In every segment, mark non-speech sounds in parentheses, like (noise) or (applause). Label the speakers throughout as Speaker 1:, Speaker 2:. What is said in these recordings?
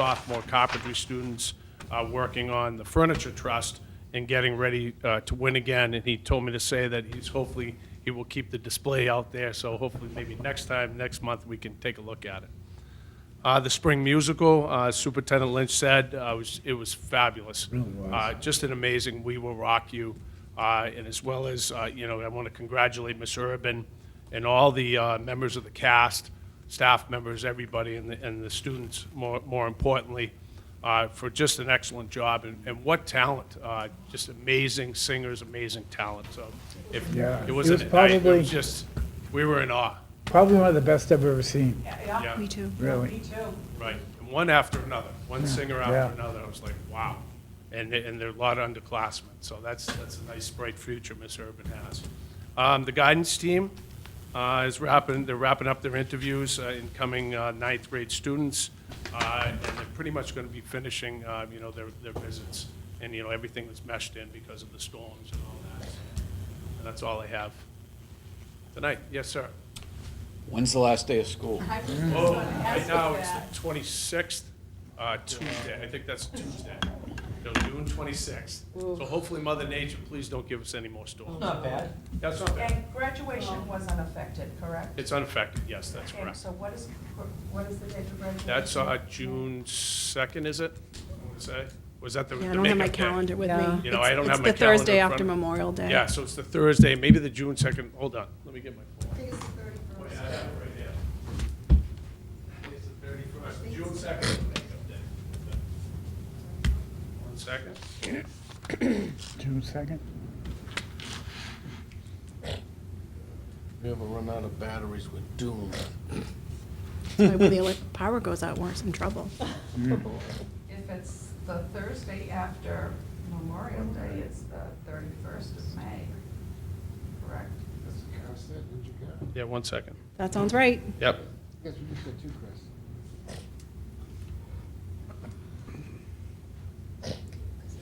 Speaker 1: sophomore carpentry students uh, working on the furniture trust and getting ready uh, to win again. And he told me to say that he's hopefully, he will keep the display out there, so hopefully maybe next time, next month, we can take a look at it. Uh, The spring musical, uh, Superintendent Lynch said, uh, was- it was fabulous.
Speaker 2: Oh,
Speaker 1: Uh, Just an amazing We Will Rock You, uh, and as well as, uh, you know, I want to congratulate Miss Urban and all the uh, members of the cast, staff members, everybody, and the and the students, more more importantly, uh, for just an excellent job, and- and what talent, uh, just amazing singers, amazing talent, so. if-
Speaker 2: Yeah.
Speaker 1: It
Speaker 2: It
Speaker 1: was,
Speaker 2: was
Speaker 1: an- I- it
Speaker 2: probably-
Speaker 1: was just, we were in awe,
Speaker 2: Probably one of the best I've ever seen,
Speaker 1: Yeah.
Speaker 3: Yeah, me too.
Speaker 2: really.
Speaker 1: Right, and one after another, one singer
Speaker 2: Yeah.
Speaker 1: after another, I was like, wow. And, they- and there are a lot of underclassmen, so that's, that's a nice bright future Miss Urban has. Um, the guidance team, uh, is wrapping, they're wrapping up their interviews, uh, incoming, uh, ninth grade students. Uh, and they're pretty much gonna be finishing, uh, you know, their, their visits, and, you know, everything was meshed in because of the storms and all that. And that's all I have tonight, yes, sir.
Speaker 4: When's the last day of school?
Speaker 1: Oh, right now, it's the twenty-sixth, uh, Tuesday, I think that's Tuesday, no, June twenty-sixth. So hopefully Mother Nature, please don't give us any more storms.
Speaker 5: Not bad.
Speaker 1: That's not bad,
Speaker 6: And graduation was unaffected, correct?
Speaker 1: it's unaffected, yes, that's
Speaker 6: Okay,
Speaker 1: correct.
Speaker 6: so what is, what is the date of graduation?
Speaker 1: That's, uh, June second, is it, I wanna say, was that the the
Speaker 3: Yeah, I
Speaker 1: makeup
Speaker 3: don't have my
Speaker 1: day?
Speaker 3: calendar with
Speaker 7: Yeah.
Speaker 3: me.
Speaker 1: You know, I
Speaker 3: It's-
Speaker 1: don't have my
Speaker 3: It's the Thursday
Speaker 1: calendar in
Speaker 3: after
Speaker 1: front of me.
Speaker 3: Memorial Day.
Speaker 1: Yeah, so it's the Thursday, maybe the June second, hold on, let me get my phone. Oh, yeah, I have it right there. It's the thirty-first, June second is the makeup day. One second.
Speaker 2: June second?
Speaker 8: We ever run out of batteries with Doom?
Speaker 3: (laughs) That's why When the elec- power goes out, we're in trouble.
Speaker 6: If it's the Thursday after Memorial Day, it's the thirty-first of May, correct?
Speaker 8: That's the concept, did you get?
Speaker 1: Yeah, one second.
Speaker 3: That sounds right.
Speaker 1: Yep.
Speaker 8: Guess we just said two, Chris.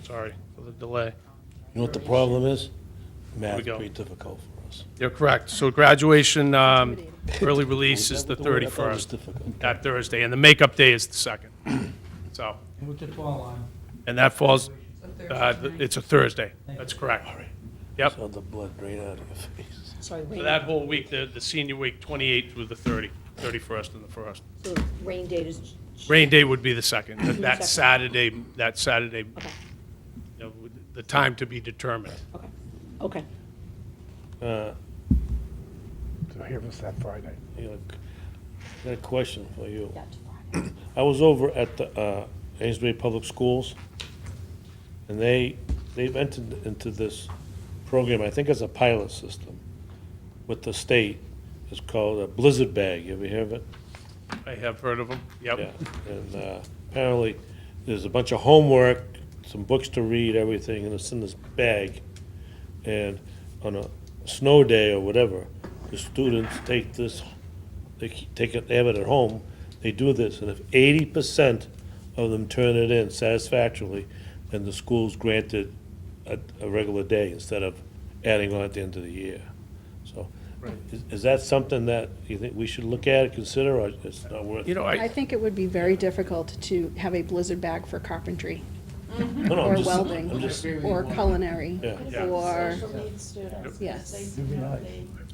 Speaker 1: Sorry for the delay.
Speaker 9: You know what the problem is?
Speaker 1: we
Speaker 9: Math
Speaker 1: go.
Speaker 9: pretty difficult for us.
Speaker 1: You're correct. So graduation, um, early release is the
Speaker 9: That word I thought was
Speaker 1: 31st,
Speaker 9: difficult.
Speaker 1: that Thursday, and the makeup day is the 2nd. So,
Speaker 5: What's it fall on?
Speaker 1: and that falls,
Speaker 6: The
Speaker 1: uh,
Speaker 6: Thursday.
Speaker 1: it's a Thursday. That's correct. Yep.
Speaker 9: Saw the blood right out of your (laughs) face.
Speaker 7: Sorry,
Speaker 1: So
Speaker 7: rain,
Speaker 1: that whole week, the, the senior week, 28th through the 30, 31st and the 1st.
Speaker 7: so rain date is,
Speaker 1: Rain day would be the 2nd, that- that
Speaker 7: Second.
Speaker 1: Saturday, that Saturday,
Speaker 7: okay,
Speaker 1: you know, the time to be determined.
Speaker 7: okay, okay.
Speaker 9: Uh,
Speaker 2: So here was that Friday.
Speaker 9: you know, I Got a question for you.
Speaker 7: Yeah, it's Friday.
Speaker 9: I was over at the uh, Amesbury Public Schools, and they, they've entered into this program, I think it's a pilot system, with the state. It's called a Blizzard Bag. You ever hear of it?
Speaker 1: I have heard of them.
Speaker 9: Yeah,
Speaker 1: Yep.
Speaker 9: and uh, apparently, there's a bunch of homework, some books to read, everything, and it's in this bag. And on a snow day or whatever, the students take this, they ke- take it, they have it at home, they do this, and if eighty percent of them turn it in satisfactorily, then the school's granted a, a regular day instead of adding on at the end of the year. So, is, is that something that you think we should look at, consider, or it's not worth?
Speaker 1: You know,
Speaker 3: I
Speaker 1: I,
Speaker 3: think it would be very difficult to have a blizzard bag for carpentry,
Speaker 9: No, no, I'm
Speaker 3: or
Speaker 9: just-
Speaker 3: welding,
Speaker 9: I'm just-
Speaker 3: or culinary,
Speaker 9: Yeah.
Speaker 1: Yeah.
Speaker 3: or,
Speaker 7: students,
Speaker 3: Yes.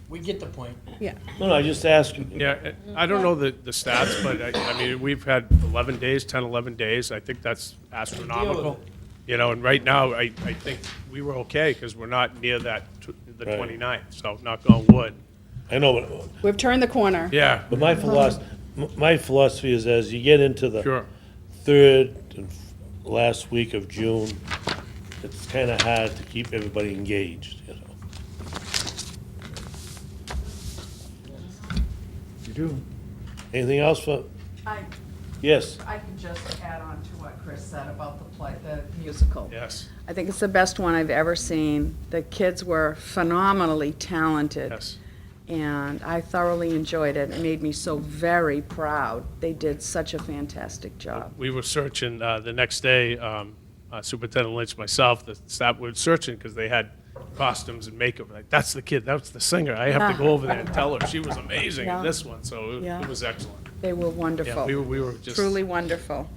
Speaker 5: We get the point.
Speaker 3: yeah.
Speaker 9: No, no, I just asked you.
Speaker 1: yeah, I don't know the, the stats, but I, I mean, we've had 11 days, 10, 11 days. I think that's astronomical. You know, and right now, I, I think we were okay because we're not near that, tw- the
Speaker 9: Right.
Speaker 1: 29th, so knock on wood.
Speaker 9: I know, but,
Speaker 3: We've turned the corner.
Speaker 1: Yeah,
Speaker 9: but my philosophy, my philosophy is as you get into the
Speaker 1: sure.
Speaker 9: third and f- last week of June, it's kind of hard to keep everybody engaged, you know.
Speaker 2: You do.
Speaker 9: Anything else for,
Speaker 6: I,
Speaker 9: yes,
Speaker 6: I can just add on to what Chris said about the play, the musical.
Speaker 1: Yes,
Speaker 10: I think it's the best one I've ever seen. The kids were phenomenally talented.
Speaker 1: yes.
Speaker 10: And I thoroughly enjoyed it. It made me so very proud. They did such a fantastic job.
Speaker 1: We were searching, uh, the next day, um, uh, Superintendent Lynch, myself, the staff were searching because they had costumes and makeup. Like, that's the kid, that's the singer. I have to go over there and tell her. She was amazing in
Speaker 10: Ah. Yeah.
Speaker 1: this one, so it-
Speaker 10: Yeah.
Speaker 1: it was excellent.
Speaker 10: They were
Speaker 1: Yeah, we were,
Speaker 10: wonderful,
Speaker 1: we were just.
Speaker 10: truly wonderful.